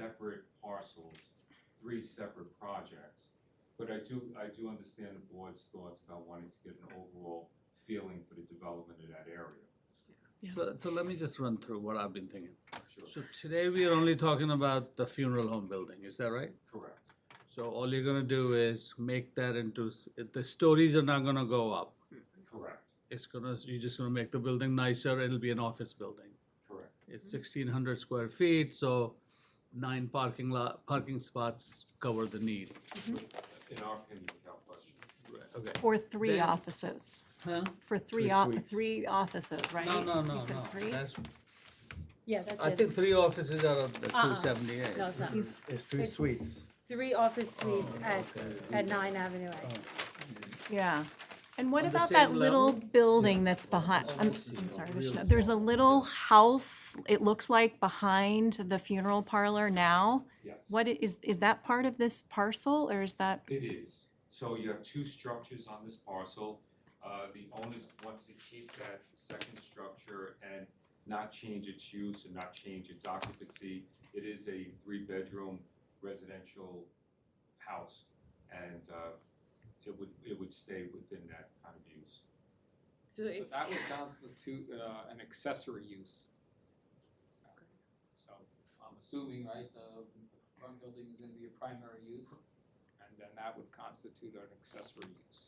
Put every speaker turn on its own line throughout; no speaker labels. separate parcels, three separate projects. But I do, I do understand the board's thoughts about wanting to get an overall feeling for the development of that area.
Yeah.
So, so let me just run through what I've been thinking.
Sure,
So today we are only talking about the funeral home building, is that right?
correct.
So all you're gonna do is make that into, the stories are not gonna go up.
Correct,
It's gonna, you're just gonna make the building nicer, it'll be an office building.
correct.
It's
Mm-hmm.
sixteen hundred square feet, so nine parking lot, parking spots cover the need.
In our opinion, without question.
Okay.
For three
Then-
offices,
Huh?
for three,
Three
o-
suites.
three offices, right?
No, no, no,
You said
no,
three?
that's,
Yeah, that's it.
I think three offices are of the
Uh-uh.
two seventy-eight.
No, it's not.
He's-
It's three
It's-
suites.
Three office suites
Oh,
at,
okay.
at Nine Avenue A.
Yeah. And what
On the
about that
same
little
level?
building that's behind,
Oh, I
I'm,
see.
I'm sorry,
Real
Vishnu, there's a
small.
little house, it looks like, behind the funeral parlor now?
Yes.
What i- is, is that part of this parcel or is that,
It is. So you have two structures on this parcel. Uh, the owners wants to keep that second structure and not change its use and not change its occupancy. It is a three-bedroom residential house and, uh, it would, it would stay within that kind of use.
So
So that would constitute uh, an accessory use. So I'm assuming, right, the front building is gonna be a primary use, and then that would constitute an accessory use.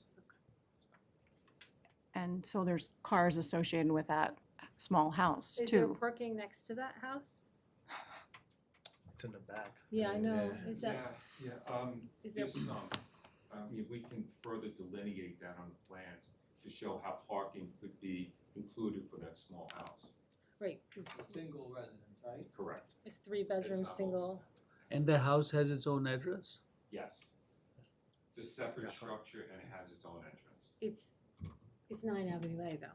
and so there's cars associated with that small house
Is there
too?
parking next to that house?
It's in the back.
Yeah, I know. Is that,
Yeah, yeah, um,
is there,
There's some, I mean, we can further delineate that on the plans to show how parking could be included for that small house.
right, because
It's a single residence, right?
Correct,
it's three bedroom,
It's not
single.
And the house has its own address?
yes. It's a separate
That's all.
structure and it has its own entrance.
It's, it's Nine Avenue A though.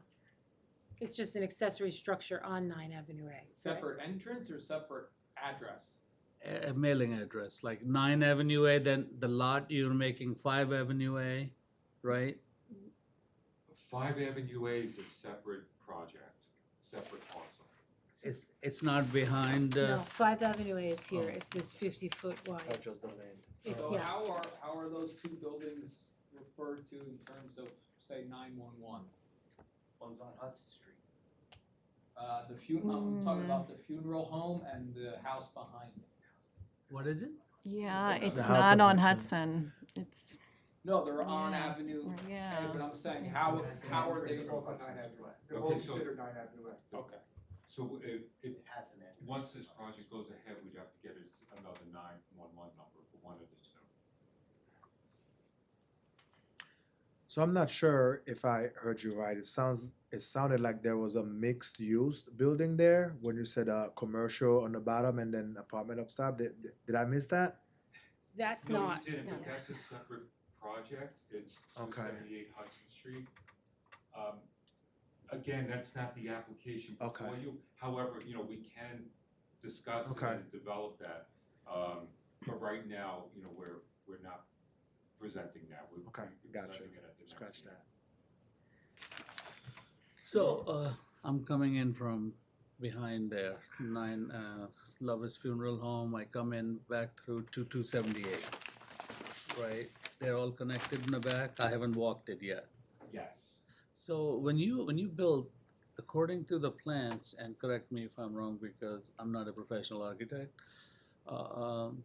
It's just an accessory structure on Nine Avenue A. correct?
Separate entrance or separate address?
a a mailing address, like nine Avenue A, then the lot you're making five Avenue A, right?
Five Avenue A is a separate project, separate parcel.
It's, it's not behind,
No,
uh,
Five Avenue A is here.
Oh.
It's this fifty foot
Oh,
wide.
just the land.
It's,
So
yeah,
how are, how are those two buildings referred to in terms of, say, nine-one-one?
One's on Hudson Street.
Uh, the funeral, I'm talking
Mm.
Hmm.
about the funeral home and the house behind it.
what is it?
Yeah,
The
it's
house
not on
on Hudson.
Hudson. It's,
No, they're on
Yeah.
Avenue, A,
yeah.
but I'm saying, how,
Yes.
how are they?
They're both on Nine Avenue Way. They're
Okay,
both
so-
considered Nine Avenue Way.
Okay,
So if, if,
It has an address.
once this project goes ahead, we'd have to get us another nine-one-one number for one of the two.
So I'm not sure if I heard you right. It sounds, it sounded like there was a mixed use building there when you said uh commercial on the bottom and then apartment up top. Did, did I miss that?
That's
No, we
not,
didn't, but
yeah.
that's a separate project, it's two
Okay.
seventy-eight Hudson Street. Um, again, that's not the application
Okay.
before you, however, you know, we can discuss it
Okay.
and develop that. Um, but right now, you know, we're, we're not presenting that, we're
Okay,
we're
gotcha.
presenting it at the next meeting.
Scratch that.
So, uh, I'm coming in from behind there, nine, uh, Lover's Funeral Home, I come in back through two two seventy-eight. Right, they're all connected in the back, I haven't walked it yet.
Yes,
So when you, when you build, according to the plans, and correct me if I'm wrong because I'm not a professional architect, uh, um,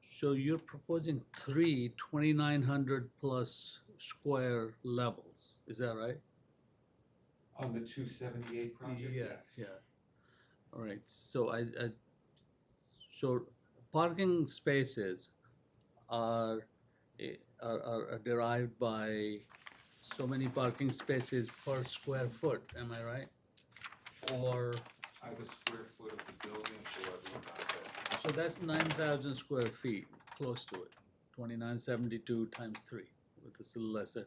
so you're proposing three 2,900 plus square levels, is that right?
on the two seventy-eight project, yes.
Yeah. All right, so I, I, so parking spaces are, eh, are, are are derived by so many parking spaces per square foot, am I right? Or,
Either square foot of the building or the amount of-
so that's nine thousand square feet, close to it, twenty-nine seventy-two times three, with a little less, than-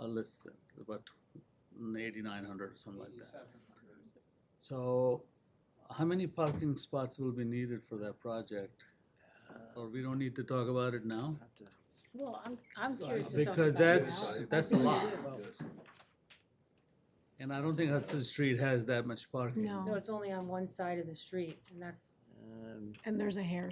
uh, less than, about eighty-nine hundred or something like that.
eighty-seven hundred.
So, how many parking spots will be needed for that project? Or we don't need to talk about it now?
well, I'm, I'm
Well,
curious to talk about
because
it
that's-
now.
that's a lot. And I don't think Hudson Street has that much parking.
No.
No, it's only on one side of the street, and that's
And there's a hair